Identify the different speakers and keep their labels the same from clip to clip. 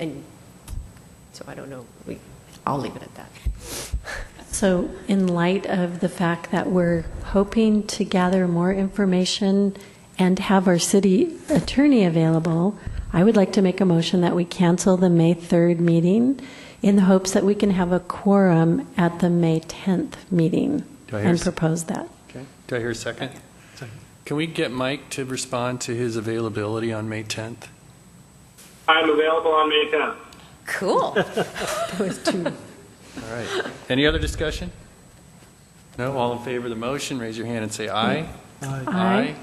Speaker 1: And so I don't know, we, I'll leave it at that.
Speaker 2: So in light of the fact that we're hoping to gather more information and have our city attorney available, I would like to make a motion that we cancel the May 3rd meeting in the hopes that we can have a quorum at the May 10th meeting
Speaker 3: Do I hear
Speaker 2: and
Speaker 3: s-
Speaker 2: propose that.
Speaker 3: Okay, do I hear a second? Can we get Mike to respond to his availability on May 10th?
Speaker 4: I'm available on May 10th.
Speaker 1: Cool.
Speaker 3: All right. Any other discussion? No, all in favor of the motion, raise your hand and say aye.
Speaker 2: Aye.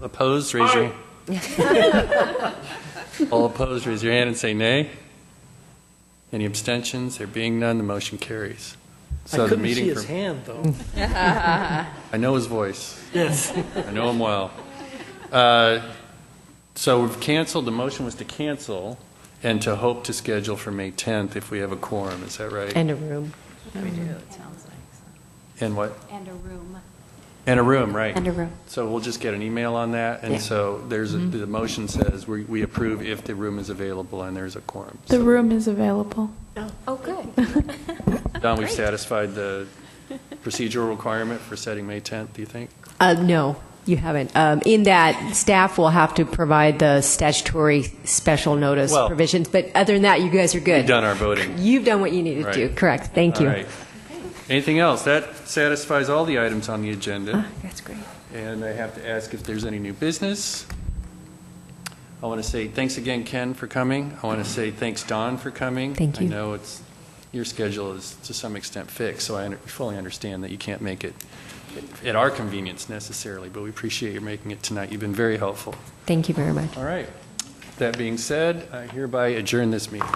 Speaker 3: All Opposed, raise your. All opposed, raise your hand and say nay. Any abstentions? There being none, the motion carries. So
Speaker 5: I
Speaker 3: the
Speaker 5: couldn't see
Speaker 3: meeting
Speaker 5: his
Speaker 3: for-
Speaker 5: hand, though.
Speaker 3: I know his voice.
Speaker 5: Yes.
Speaker 3: I know him well. Uh, So we've canceled, the motion was to cancel and to hope to schedule for May 10th if we have a quorum, is that right?
Speaker 1: And a room.
Speaker 3: And what?
Speaker 6: And a room.
Speaker 3: And a room, right.
Speaker 2: And a room.
Speaker 3: So we'll just get an email on that,
Speaker 1: Yeah. Mm-hmm.
Speaker 3: and so there's, a- the motion says we we approve if the room is available and there's a quorum.
Speaker 7: The
Speaker 3: So,
Speaker 7: room is available.
Speaker 6: Oh, good.
Speaker 3: Don, we've satisfied the procedural requirement for setting May 10th, do you think?
Speaker 1: Uh, no, you haven't. Um, in that, staff will have to provide the statutory special notice
Speaker 3: Well-
Speaker 1: provisions, but other than that, you guys are good.
Speaker 3: We've done our voting.
Speaker 1: You've done what you needed to do,
Speaker 3: Right.
Speaker 1: correct, thank you.
Speaker 3: All right. Anything else? That satisfies all the items on the agenda.
Speaker 1: Ah, That's great.
Speaker 3: And I have to ask if there's any new business. I want to say thanks again, Ken, for coming. I want to say thanks, Don, for coming.
Speaker 1: Thank
Speaker 3: I
Speaker 1: you.
Speaker 3: know it's, your schedule is to some extent fixed, so I under- fully understand that you can't make it at our convenience necessarily, but we appreciate your making it tonight. You've been very helpful.
Speaker 1: Thank you very much.
Speaker 3: All right. That being said, I hereby adjourn this meeting.